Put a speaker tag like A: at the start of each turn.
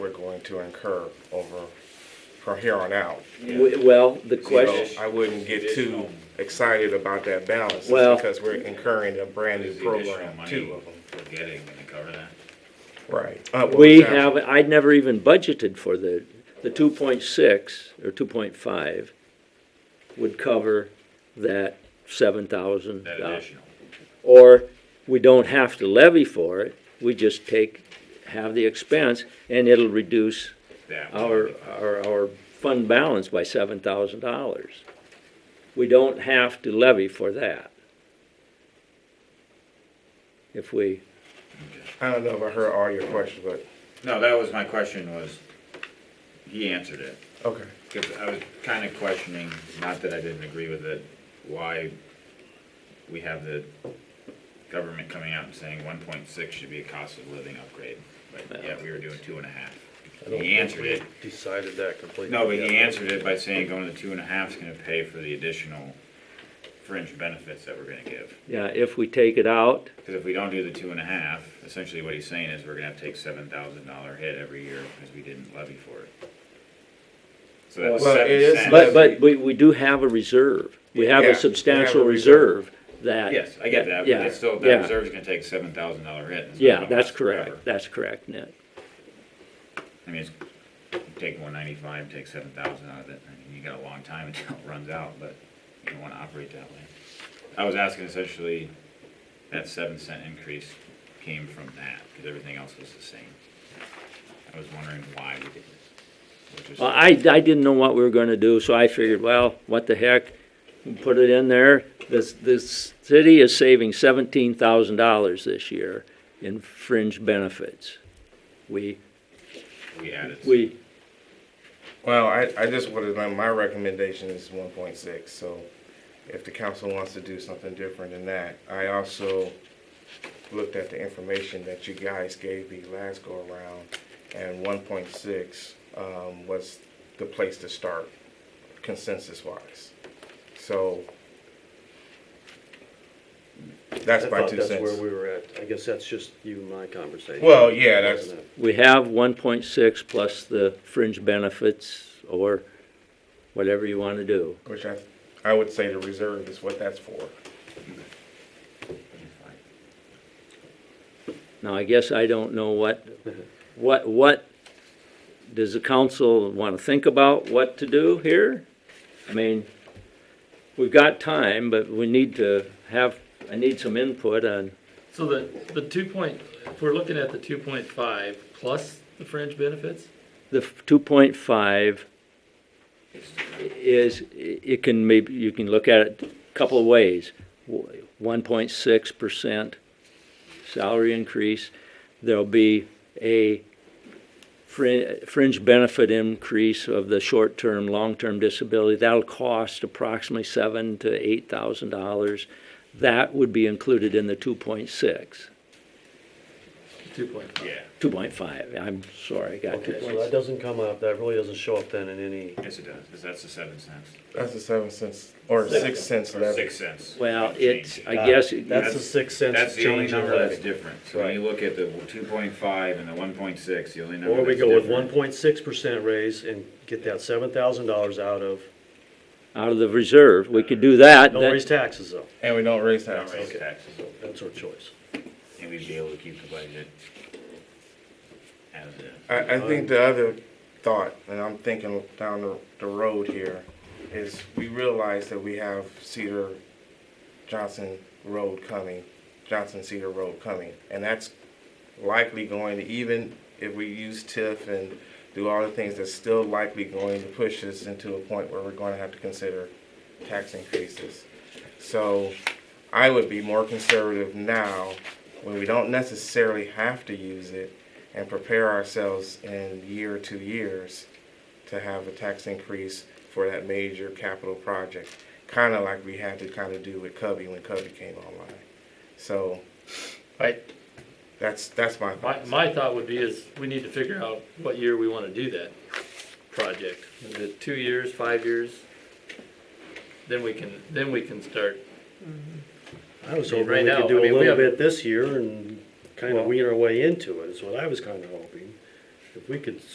A: going to incur over, from here on out.
B: W- Well, the
A: So
B: question,
A: I wouldn't get too excited about that balance,
B: Well-
A: because we're incurring a brand new
C: Is the additional
A: program,
C: money
A: two of them.
C: we're getting gonna cover that?
A: Right. Uh, well,
B: we
A: exactly.
B: have, I'd never even budgeted for the, the two point six or two point five would cover that seven thousand.
C: That additional?
B: Or we don't have to levy for it, we just take, have the expense and it'll reduce
C: That would
B: our, our, our fund balance by seven thousand dollars. We don't have to levy for that. If we,
A: I don't know if I heard all your questions, but,
C: No, that was my question was, he answered it.
A: okay.
C: 'Cause I was kinda questioning, not that I didn't agree with it, why we have the government coming out and saying one point six should be a cost of living upgrade. But yeah, we were doing two and a half. He answered it.
D: Decided that completely.
C: No, but he answered it by saying going to two and a half is gonna pay for the additional fringe benefits that we're gonna give.
B: yeah, if we take it out,
C: Because if we don't do the two and a half, essentially what he's saying is we're gonna have to take seven thousand dollar hit every year because we didn't levy for it. So that's
A: Well, it is-
C: seven
B: but,
C: cents.
B: but we, we do have a reserve. We have
A: Yeah, we
B: a
A: have
B: substantial
A: a reserve.
B: reserve that.
C: Yes, I get that, but
B: Yeah,
C: it's still, that
B: yeah.
C: reserve's gonna take seven thousand dollar hit. and it's not
B: Yeah,
C: gonna
B: that's
C: last
B: correct,
C: forever.
B: that's correct, Ned.
C: I mean, it's, you take one ninety-five, take seven thousand out of it, and you got a long time until it runs out, but you don't wanna operate that way. I was asking essentially, that seven cent increase came from that, because everything else was the same. I was wondering why we did it. which is-
B: Well, I, I didn't know what we were gonna do, so I figured, well, what the heck, put it in there. This, this city is saving seventeen thousand dollars this year in fringe benefits. We,
C: We added.
B: we,
A: Well, I, I just would have, my recommendation is one point six, so if the council wants to do something different than that, I also looked at the information that you guys gave me last go around, and one point six, um, was the place to start consensus wise. So that's
D: I
A: my
D: thought
A: two
D: that's where
A: cents.
D: we were at. I guess that's just you and my conversation.
A: Well, yeah, that's-
D: Wasn't it?
B: we have one point six plus the fringe benefits or whatever you wanna do.
A: Which I, I would say the reserve is what that's for.
B: Now, I guess I don't know what, what, what, does the council want to think about what to do here? I mean, we've got time, but we need to have, I need some input on,
E: So the, the two point, if we're looking at the two point five plus the fringe benefits,
B: the two point five is, it can maybe, you can look at it a couple of ways. One point six percent salary increase, there'll be a frin- fringe benefit increase of the short-term, long-term disability. That'll cost approximately seven to eight thousand dollars. That would be included in the two point six,
E: two point five.
C: Yeah,
B: two point five, I'm sorry, I got two
D: Okay,
B: point
D: so that doesn't come up, that really doesn't show up then in any,
C: yes it does, because that's the seven cents,
A: That's the seven cents, or six cents
C: or
A: left.
C: six cents.
B: Well,
C: Change.
B: it's, I guess, it-
D: uh, that's the six cents
C: That's the only
D: change in
C: number that's
D: levy.
C: different, so when you look at the two point five and the one point six, the only number
D: Or
C: that's
D: we go with one
C: different-
D: point six percent raise and get that seven thousand dollars out of,
B: out of the reserve, we could do that.
D: don't
B: that-
D: raise taxes though,
A: And we don't raise
C: Not raise
A: taxes.
C: taxes,
D: that's our choice.
C: and we'd be able to keep the budget as is.
A: I, I think the other thought, and I'm thinking down the, the road here, is we realize that we have Cedar Johnson Road coming, Johnson Cedar Road coming, and that's likely going to, even if we use TIF and do all the things, that's still likely going to push us into a point where we're going to have to consider tax increases. So I would be more conservative now when we don't necessarily have to use it and prepare ourselves in year or two years to have a tax increase for that major capital project, kind of like we had to kind of do with Cubby when Cubby came online. So
E: I,
A: that's, that's my
E: my,
A: thoughts.
E: my thought would be is we need to figure out what year we wanna do that project. Is it two years, five years? Then we can, then we can start.
D: I was
E: I mean,
D: hoping we
E: right now,
D: could do
E: I
D: a
E: mean, we
D: little
E: have-
D: bit this year and kind
E: Well-
D: of wean our way into it, is what I was kind of hoping. If we could